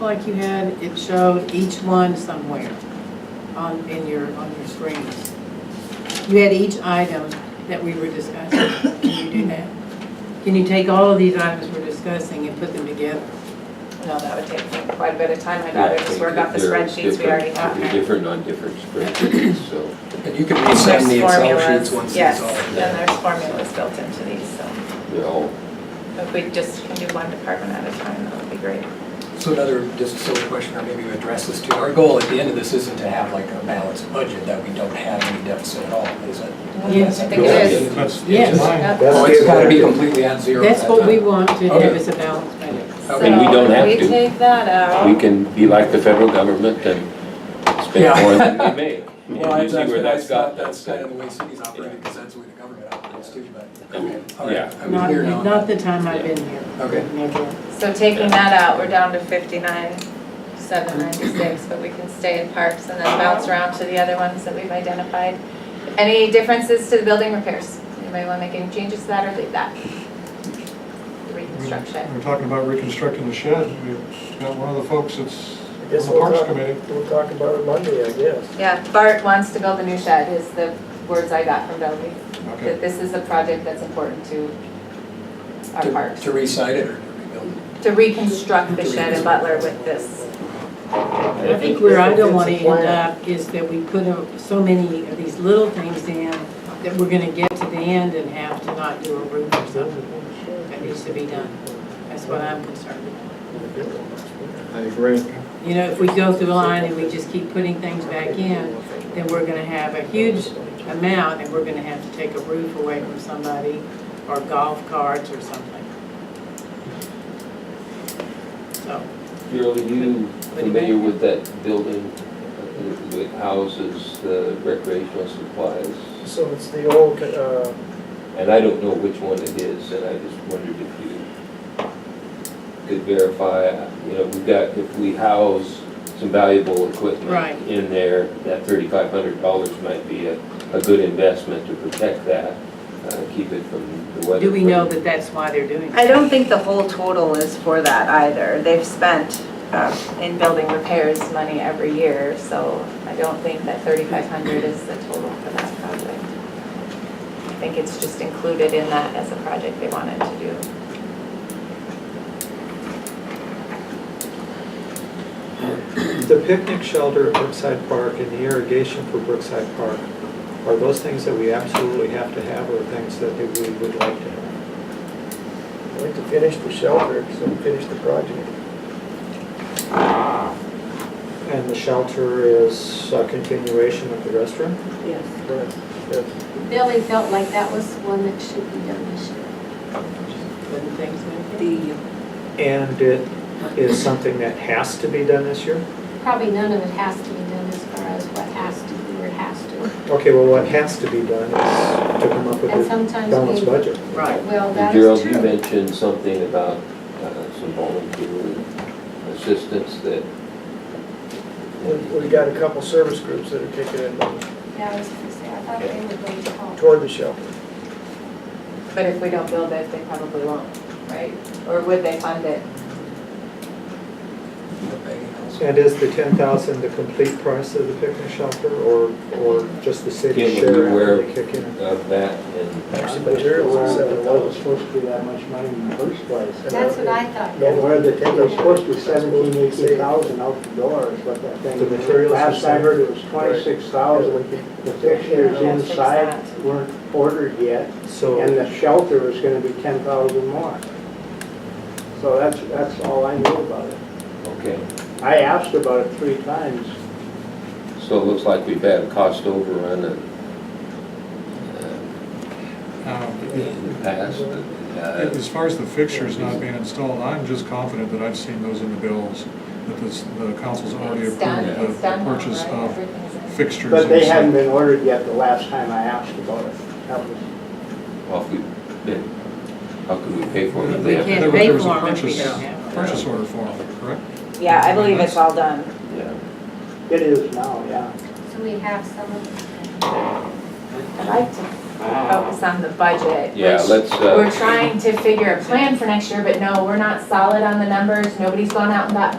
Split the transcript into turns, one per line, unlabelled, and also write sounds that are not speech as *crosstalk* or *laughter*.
like you had, it showed each one somewhere on, in your, on your screens. You had each item that we were discussing. Can you do that? Can you take all of these items we're discussing and put them together?
No, that would take me quite a bit of time, I'd rather just work off the
They're
spreadsheets we already
different- They're
have.
different on different spreadsheets, so.
And you can
There's
resend the Excel
formulas.
sheets once
Yes,
it's
and
all.
there's formulas built into these, so
They're all,
if we just can do one department at a time, that would be great.
So another, just a silly question, or maybe you address this too. Our goal at the end of this isn't to have like a balanced budget that we don't have any deficit at all, is it?
Yes.
I think it is.
That's
Yes.
Oh, it's gotta be completely at zero.
That's
at
what
that
we
time.
want to have is a balanced budget.
And we don't have
So
to.
if we take that out.
we can be like the federal government and spend
Yeah.
more than we
*laughs*
make.
Well,
And you see where that's got,
that's
that's,
kind of
uh,
the way cities operate, because that's the way the government operates too, but.
Okay.
All right.
Yeah.
I mean,
Not,
we're not-
not the time I've been here.
Okay.
Never.
So taking that out, we're down to fifty-nine, seven ninety-six, but we can stay in parks and then bounce around to the other ones that we've identified. Any differences to the building repairs? Anybody wanna make any changes to that or leave that? Reconstruction.
We're talking about reconstructing the shed, we've got one of the folks that's
I
on
guess
the
we'll
Parks
talk,
Committee.
we'll talk about it Monday, I guess.
Yeah, Bart wants to build a new shed is the words I got from Bellevue,
Okay.
that this is a project that's important to our
To-
parks.
To recite it or to rebuild it.
To reconstruct the shed in Butler with this.
I think where I don't want to end up is that we put a- so many of these little things in that we're going to get to the end and have to not do a roof or something uh, that needs to be done. That's what I'm concerned about.
I agree.
You know, if we go through the line and we just keep putting things back in, then we're going to have a huge amount and we're going to have to take a roof away from somebody or golf carts or something. So,
Carol, are you familiar with that building, uh, that houses the recreational supplies?
So it's the old, uh,
And I don't know which one it is, and I just wondered if you could verify, you know, we've got, if we house some valuable equipment
Right.
in there, that thirty-five hundred dollars might be a, a good investment to protect that, uh, keep it from the weather.
do we know that that's why they're doing it?
I don't think the whole total is for that either. They've spent,
um, in building repairs money every year, so I don't think that thirty-five hundred is the total for that project. I think it's just included in that as a project they wanted to do.
the picnic shelter at Brookside Park and the irrigation for Brookside Park, are those things that we absolutely have to have or things that we would like to have?
I'd like to finish the shelter, so finish the project.
And the shelter is a continuation of the restaurant?
Yes.
Yes.
Billy felt like that was one that should be done this year.
Wouldn't think so.
And it is something that has to be done this year?
Probably none of it has to be done as far as what has to, be or has to.
Okay, well, what has to be done is to come up with
And
a
sometimes
balanced
we,
budget.
Right.
well, that
Gerald,
is
you
true.
mentioned something about uh, some volunteer assistance that.
We, we got a couple service groups that are kicking in money
Yeah, I was gonna say, I thought they were going to call.
toward the shelter.
But if we don't build it, they probably won't, right? Or would they fund it?
Anything else?
And is the ten thousand the complete price of the picnic shelter, or, or just the city
Kim, were
share
you aware
after they
of
kick in?
of that and.
Actually, materials are seven dollars.
supposed to be that much money in the first place.
That's what I thought.
No, where the, it was supposed to be seventeen, eighteen thousand out the door is what that thing.
The materials are
Last I heard it was twenty-six thousand.
Thousand.
The fixtures inside weren't ordered yet, and
So,
the shelter was gonna be ten thousand more. So that's, that's all I knew about it.
Okay,
I asked about it three times.
so it looks like we've had a cost overrun and, uh,
Um,
in the past. uh,
As far as the fixtures not being installed, I'm just confident that I've seen those in the bills, that this, the council's already
It's done,
approved the
it's done
the
now,
purchase
right?
of
Everything's in.
fixtures.
But
and
they
stuff.
hadn't been ordered yet the last time I asked about it. That was
Well, if we've been, how could we pay for it? if
We
they haven't-
can't
There was-
pay
there was a
for 'em if we
purchase-
don't have 'em.
Purchase order form, correct?
yeah, I believe it's all done.
Yeah.
It is now, yeah.
So we have some of them.
I'd like to focus on the budget,
Yeah,
which
let's, uh,
We're trying to figure a plan for next year, but no, we're not solid on the numbers. Nobody's gone out and got